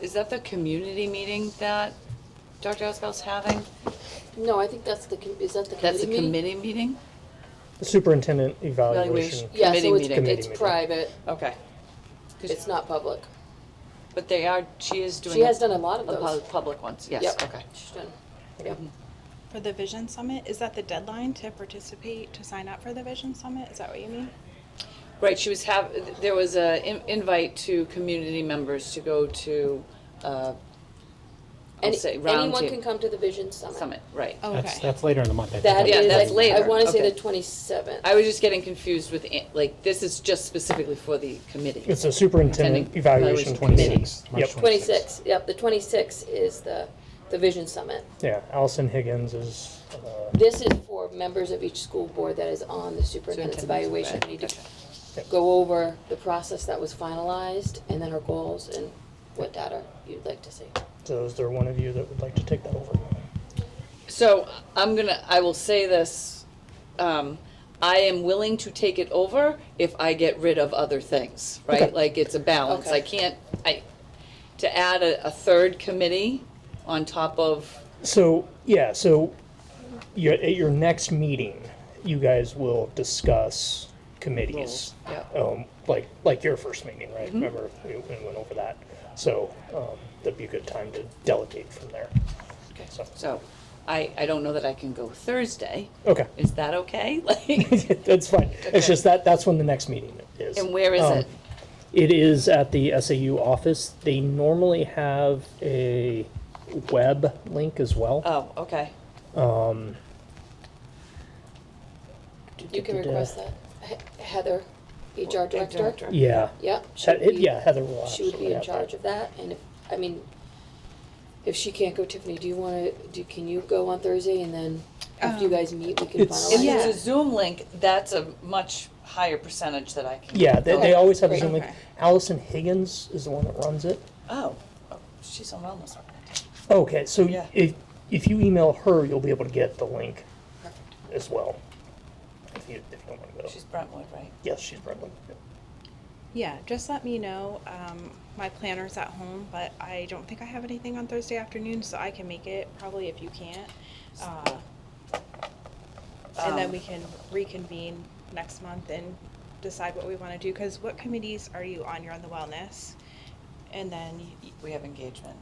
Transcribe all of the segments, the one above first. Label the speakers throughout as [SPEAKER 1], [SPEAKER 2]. [SPEAKER 1] is that the community meeting that Dr. Asbell's having?
[SPEAKER 2] No, I think that's the, com- is that the committee
[SPEAKER 1] That's a
[SPEAKER 2] meeting?
[SPEAKER 1] committee meeting?
[SPEAKER 3] The superintendent
[SPEAKER 1] Evaluation.
[SPEAKER 3] evaluation.
[SPEAKER 2] Yeah,
[SPEAKER 1] Committee
[SPEAKER 2] so it's,
[SPEAKER 1] meeting.
[SPEAKER 2] it's
[SPEAKER 3] Committee meeting.
[SPEAKER 2] private,
[SPEAKER 1] Okay. 'Cause-
[SPEAKER 2] it's not public.
[SPEAKER 1] But they are, she is doing.
[SPEAKER 2] She has done a lot of
[SPEAKER 1] The
[SPEAKER 2] those.
[SPEAKER 1] pub- public ones, yes,
[SPEAKER 2] Yep,
[SPEAKER 1] okay.
[SPEAKER 2] she's done, yep.
[SPEAKER 4] For the Vision Summit, is that the deadline to participate, to sign up for the Vision Summit? Is that what you mean?
[SPEAKER 1] Right, she was have, there was a in- invite to community members to go to, uh, I'll
[SPEAKER 2] Any-
[SPEAKER 1] say round
[SPEAKER 2] Anyone can
[SPEAKER 1] table
[SPEAKER 2] come to the Vision Summit.
[SPEAKER 1] summit, right.
[SPEAKER 4] Oh,
[SPEAKER 5] That's,
[SPEAKER 4] okay.
[SPEAKER 5] that's later in the month, I
[SPEAKER 2] That
[SPEAKER 5] think.
[SPEAKER 1] Yeah,
[SPEAKER 2] is,
[SPEAKER 1] that's
[SPEAKER 2] I- I
[SPEAKER 1] later,
[SPEAKER 2] wanna say
[SPEAKER 1] okay.
[SPEAKER 2] the twenty-seventh.
[SPEAKER 1] I was just getting confused with, an- like, this is just specifically for the committee.
[SPEAKER 3] It's a superintendent
[SPEAKER 1] Attending
[SPEAKER 3] evaluation
[SPEAKER 1] evaluation committee.
[SPEAKER 3] committee.
[SPEAKER 5] Twenty-six, March
[SPEAKER 3] Yep.
[SPEAKER 5] twenty-six.
[SPEAKER 2] Twenty-six, yep, the twenty-six is the, the Vision Summit.
[SPEAKER 3] Yeah, Allison Higgins is, uh,
[SPEAKER 2] This is for members of each school board that is on the
[SPEAKER 1] Superintendent's
[SPEAKER 2] superintendent's evaluation. We need
[SPEAKER 1] evaluation,
[SPEAKER 2] to go over the process that was finalized and then our goals and what data you'd like to see.
[SPEAKER 3] so is there one of you that would like to take that over?
[SPEAKER 1] So I'm gonna, I will say this, um, I am willing to take it over if I get rid of other things, right?
[SPEAKER 3] Okay.
[SPEAKER 1] Like, it's a balance,
[SPEAKER 2] Okay.
[SPEAKER 1] I can't, I, to add a, a third committee on top of,
[SPEAKER 3] So, yeah, so you at your next meeting, you guys will discuss committees.
[SPEAKER 1] Roles,
[SPEAKER 3] Um, like, like your first meeting, right?
[SPEAKER 1] Mm-hmm.
[SPEAKER 3] Remember, we we went over that. So, um, that'd be a good time to delegate from there. So,
[SPEAKER 1] so, I, I don't know that I can go Thursday,
[SPEAKER 3] okay,
[SPEAKER 1] is that okay? Like,
[SPEAKER 3] that's fine. It's just that, that's when the next meeting is.
[SPEAKER 1] and where is
[SPEAKER 3] Um,
[SPEAKER 1] it?
[SPEAKER 3] It is at the SAU office. They normally have a web link as well. Um,
[SPEAKER 1] Oh, okay,
[SPEAKER 2] Oh. You can request that. He- Heather, HR director?
[SPEAKER 1] director.
[SPEAKER 3] Yeah.
[SPEAKER 2] Yep. she would
[SPEAKER 3] He-
[SPEAKER 2] be-
[SPEAKER 3] Yeah, Heather will
[SPEAKER 2] She would
[SPEAKER 3] absolutely
[SPEAKER 2] be in
[SPEAKER 3] have that.
[SPEAKER 2] charge of that, and if, I mean, if she can't go, Tiffany, do you wanna, do, can you go on Thursday and then after you
[SPEAKER 4] Um,
[SPEAKER 2] guys meet, we can
[SPEAKER 3] it's-
[SPEAKER 2] finalize?
[SPEAKER 1] If
[SPEAKER 2] it?
[SPEAKER 1] there's a Zoom link, that's a much higher percentage that I can.
[SPEAKER 3] Yeah, they,
[SPEAKER 2] Okay,
[SPEAKER 3] they always have a
[SPEAKER 2] great.
[SPEAKER 3] Zoom link.
[SPEAKER 4] Okay.
[SPEAKER 3] Allison Higgins is the one that runs it.
[SPEAKER 1] Oh, oh, she's on wellness organization.
[SPEAKER 3] Okay, so
[SPEAKER 1] Yeah.
[SPEAKER 3] if, if you email her, you'll be able to get the link as well. If you, if you don't want to go.
[SPEAKER 1] She's Brentwood, right?
[SPEAKER 3] Yes, she's Brooklyn.
[SPEAKER 4] Yeah, just let me know. Um, my planner's at home, but I don't think I have anything on Thursday afternoon, so I can make it probably if you can't. Uh, and then
[SPEAKER 1] Um,
[SPEAKER 4] we can reconvene next month and decide what we want to do. Because what committees are you on? You're on the wellness, and then y-
[SPEAKER 1] We have engagement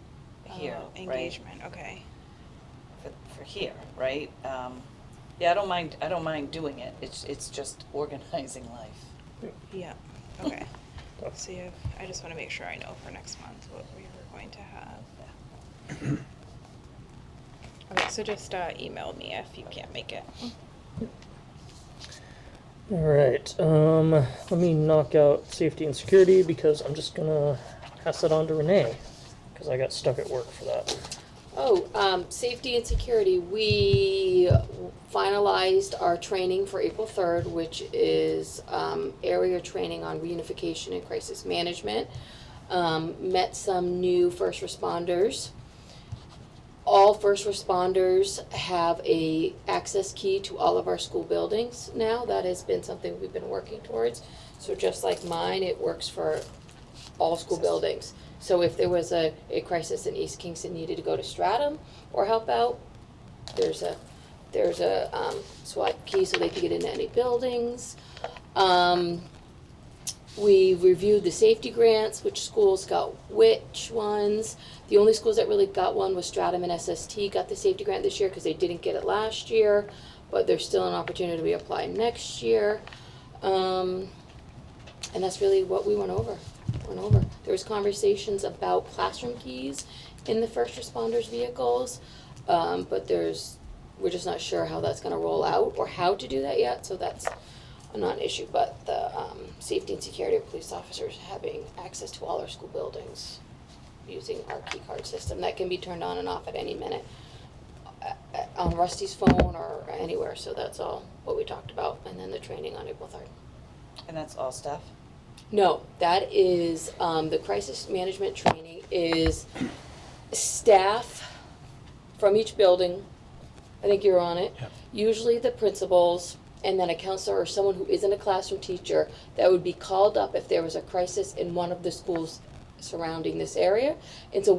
[SPEAKER 4] uh,
[SPEAKER 1] here, right?
[SPEAKER 4] engagement. Okay.
[SPEAKER 1] For, for here, right? Um, yeah, I don't mind, I don't mind doing it. It's, it's just organizing life.
[SPEAKER 4] Yeah, okay.
[SPEAKER 3] Okay.
[SPEAKER 4] So you have, I just want to make sure I know for next month what we were going to have. Okay, so just uh, email me if you can't make it.
[SPEAKER 3] All right, um, let me knock out safety and security because I'm just gonna pass it on to Renee because I got stuck at work for that.
[SPEAKER 2] Oh, um, safety and security, we finalized our training for April third, which is, um, area training on reunification and crisis management. Um, met some new first responders. All first responders have a access key to all of our school buildings now, that has been something we've been working towards. So just like mine, it works for all school buildings. So if there was a, a crisis in East Kingston needed to go to Stratum or help out, there's a, there's a, um, SWAT key so they could get into any buildings. Um, we reviewed the safety grants, which schools got which ones. The only schools that really got one was Stratum and SST got the safety grant this year because they didn't get it last year, but there's still an opportunity to reapply next year. Um, and that's really what we went over, went over. There was conversations about classroom keys in the first responders' vehicles, um, but there's, we're just not sure how that's gonna roll out or how to do that yet, so that's a non-issue, but the, um, safety and security of police officers having access to all our school buildings using our key card system, that can be turned on and off at any minute uh, uh, on Rusty's phone or anywhere, so that's all what we talked about, and then the training on April third.
[SPEAKER 1] And that's all staff?
[SPEAKER 2] No, that is, um, the crisis management training is staff from each building. I think you're on it.
[SPEAKER 5] Yep.
[SPEAKER 2] Usually the principals and then a counselor or someone who isn't a classroom teacher that would be called up if there was a crisis in one of the schools surrounding this area. It's a